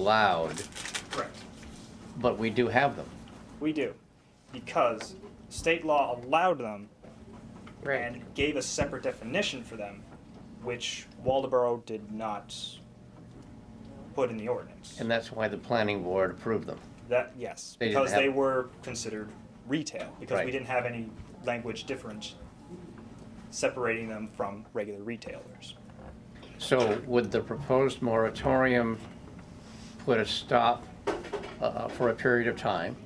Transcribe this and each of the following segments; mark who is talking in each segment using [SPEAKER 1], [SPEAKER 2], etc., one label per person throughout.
[SPEAKER 1] allowed,
[SPEAKER 2] Correct.
[SPEAKER 1] but we do have them.
[SPEAKER 2] We do, because state law allowed them and gave a separate definition for them, which Waldeboro did not put in the ordinance.
[SPEAKER 1] And that's why the planning board approved them.
[SPEAKER 2] That, yes,
[SPEAKER 1] They didn't
[SPEAKER 2] because they
[SPEAKER 1] have-
[SPEAKER 2] were considered retail, because
[SPEAKER 1] Right.
[SPEAKER 2] we didn't have any language different separating them from regular retailers.
[SPEAKER 1] So would the proposed moratorium put a stop uh, for a period of time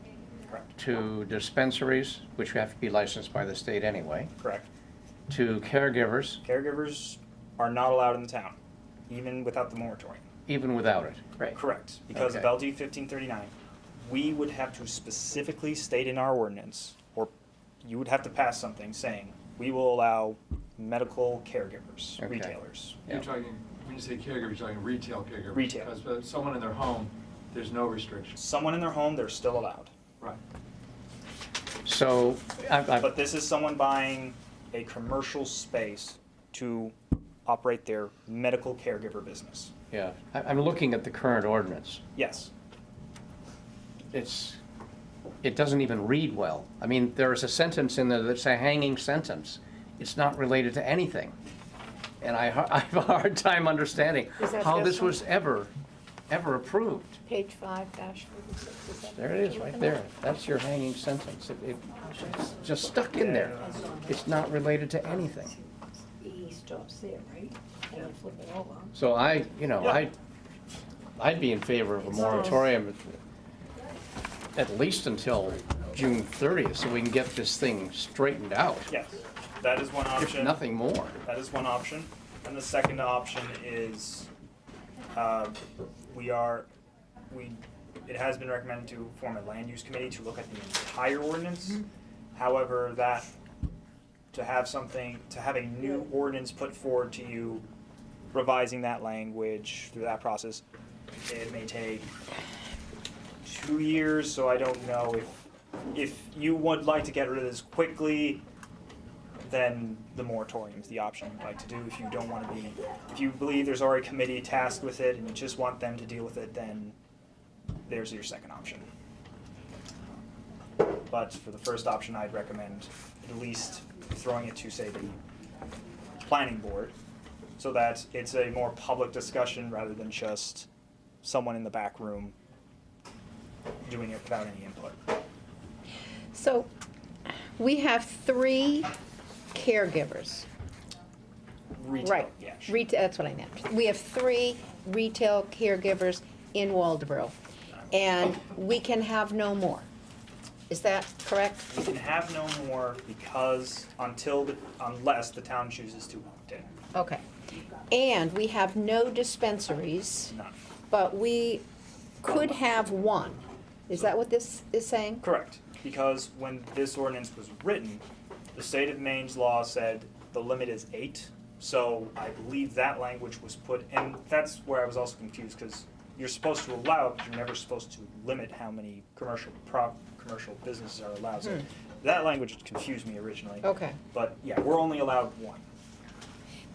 [SPEAKER 2] Correct,
[SPEAKER 1] to dispensaries, which have to be licensed by the state anyway,
[SPEAKER 2] correct.
[SPEAKER 1] to caregivers,
[SPEAKER 2] Caregivers are not allowed in the town, even without the moratorium.
[SPEAKER 1] even without it?
[SPEAKER 3] Right.
[SPEAKER 2] Correct, because of
[SPEAKER 1] Okay.
[SPEAKER 2] LD fifteen thirty-nine, we would have to specifically state in our ordinance, or you would have to pass something saying, we will allow medical caregivers,
[SPEAKER 1] Okay.
[SPEAKER 2] retailers.
[SPEAKER 1] Yeah.
[SPEAKER 4] You're talking, when you say caregiver, you're talking retail caregiver.
[SPEAKER 2] Retail.
[SPEAKER 4] Because uh, someone in their home, there's no restrictions.
[SPEAKER 2] Someone in their home, they're still allowed.
[SPEAKER 4] Right.
[SPEAKER 1] So I- I-
[SPEAKER 2] But this is someone buying a commercial space to operate their medical caregiver business.
[SPEAKER 1] yeah, I- I'm looking at the current ordinance.
[SPEAKER 2] Yes,
[SPEAKER 1] It's, it doesn't even read well. I mean, there is a sentence in there that's a hanging sentence. It's not related to anything. And I ha- I have a hard time understanding
[SPEAKER 3] Is that
[SPEAKER 1] how this
[SPEAKER 3] this one?
[SPEAKER 1] was ever, ever approved.
[SPEAKER 3] Page five dash forty-six. is that
[SPEAKER 1] There
[SPEAKER 3] what
[SPEAKER 1] it is,
[SPEAKER 3] you're
[SPEAKER 1] right
[SPEAKER 3] looking
[SPEAKER 1] there.
[SPEAKER 3] at?
[SPEAKER 1] That's your hanging sentence. It- it- It's just stuck in there. It's not related to anything.
[SPEAKER 3] E stops there, right? And then flip it over.
[SPEAKER 1] So I, you know, I, I'd be in favor of a moratorium at least until June thirtieth, so we can get this thing straightened out,
[SPEAKER 2] yes, that is one
[SPEAKER 1] if
[SPEAKER 2] option.
[SPEAKER 1] nothing more.
[SPEAKER 2] That is one option. And the second option is, uh, we are, we, it has been recommended to form a land use committee to look at the entire ordinance. However, that, to have something, to have a new ordinance put forward to you, revising that language through that process, it may take two years, so I don't know if, if you would like to get rid of this quickly, then the moratorium is the option you'd like to do. If you don't want to be, if you believe there's already a committee tasked with it and you just want them to deal with it, then there's your second option. But for the first option, I'd recommend at least throwing it to, say, the planning board so that it's a more public discussion rather than just someone in the back room doing it without any input.
[SPEAKER 5] So we have three caregivers,
[SPEAKER 2] Retail,
[SPEAKER 5] right?
[SPEAKER 2] yeah. sure.
[SPEAKER 5] Retail, that's what I meant. We have three retail caregivers in Waldeboro, and we can have no more. Is that correct?
[SPEAKER 2] We can have no more because until, the unless the town chooses to opt in,
[SPEAKER 5] Okay. And we have no dispensaries,
[SPEAKER 2] none.
[SPEAKER 5] but we could have one. Is that what this is saying?
[SPEAKER 2] Correct, because when this ordinance was written, the state of Maine's law said the limit is eight. So I believe that language was put, and that's where I was also confused, because you're supposed to allow, but you're never supposed to limit how many commercial prop, commercial businesses are allowed. So That language confused me originally.
[SPEAKER 5] Hmm. Okay.
[SPEAKER 2] But yeah, we're only allowed one.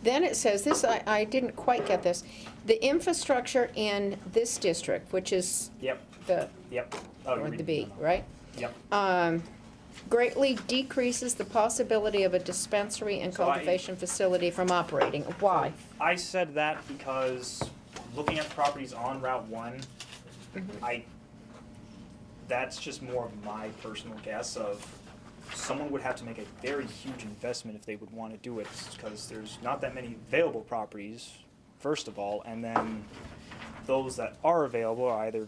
[SPEAKER 5] Then it says, this, I, I didn't quite get this, the infrastructure in this district, which is
[SPEAKER 2] Yep,
[SPEAKER 5] the,
[SPEAKER 2] yep. Oh, you're
[SPEAKER 5] or the
[SPEAKER 2] reading
[SPEAKER 5] B,
[SPEAKER 2] it now.
[SPEAKER 5] right?
[SPEAKER 2] Yep.
[SPEAKER 5] um, greatly decreases the possibility of a dispensary and
[SPEAKER 2] So I-
[SPEAKER 5] cultivation facility from operating. Why?
[SPEAKER 2] I said that because looking at properties on Route One, I, that's just more of my personal guess of someone would have to make a very huge investment if they would want to do it, because there's not that many available properties, first of all, and then those that are available are either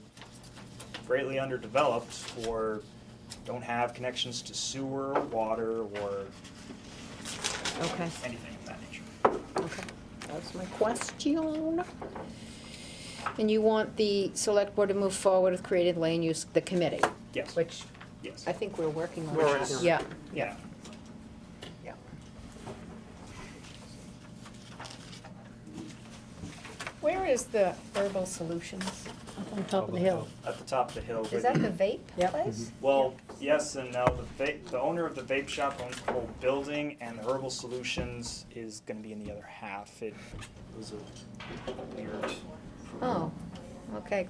[SPEAKER 2] greatly underdeveloped or don't have connections to sewer, or water, or
[SPEAKER 5] Okay,
[SPEAKER 2] anything of that nature.
[SPEAKER 5] okay. That's my question. And you want the select board to move forward with creating land use, the committee,
[SPEAKER 2] Yes,
[SPEAKER 5] which
[SPEAKER 2] yes,
[SPEAKER 5] I think we're working on.
[SPEAKER 2] We're working on it.
[SPEAKER 5] Yeah,
[SPEAKER 2] yeah.
[SPEAKER 5] yeah. Where is the herbal solutions?
[SPEAKER 3] Up on top of the hill.
[SPEAKER 2] at the top of the hill.
[SPEAKER 5] Is
[SPEAKER 2] but-
[SPEAKER 5] that the vape
[SPEAKER 3] Yep.
[SPEAKER 5] place?
[SPEAKER 2] Well, yes and no. The vape, the owner of the vape shop owns the whole building, and the Herbal Solutions is going to be in
[SPEAKER 3] Mm-hmm.
[SPEAKER 2] the other half. It was a weird.
[SPEAKER 5] Oh, okay,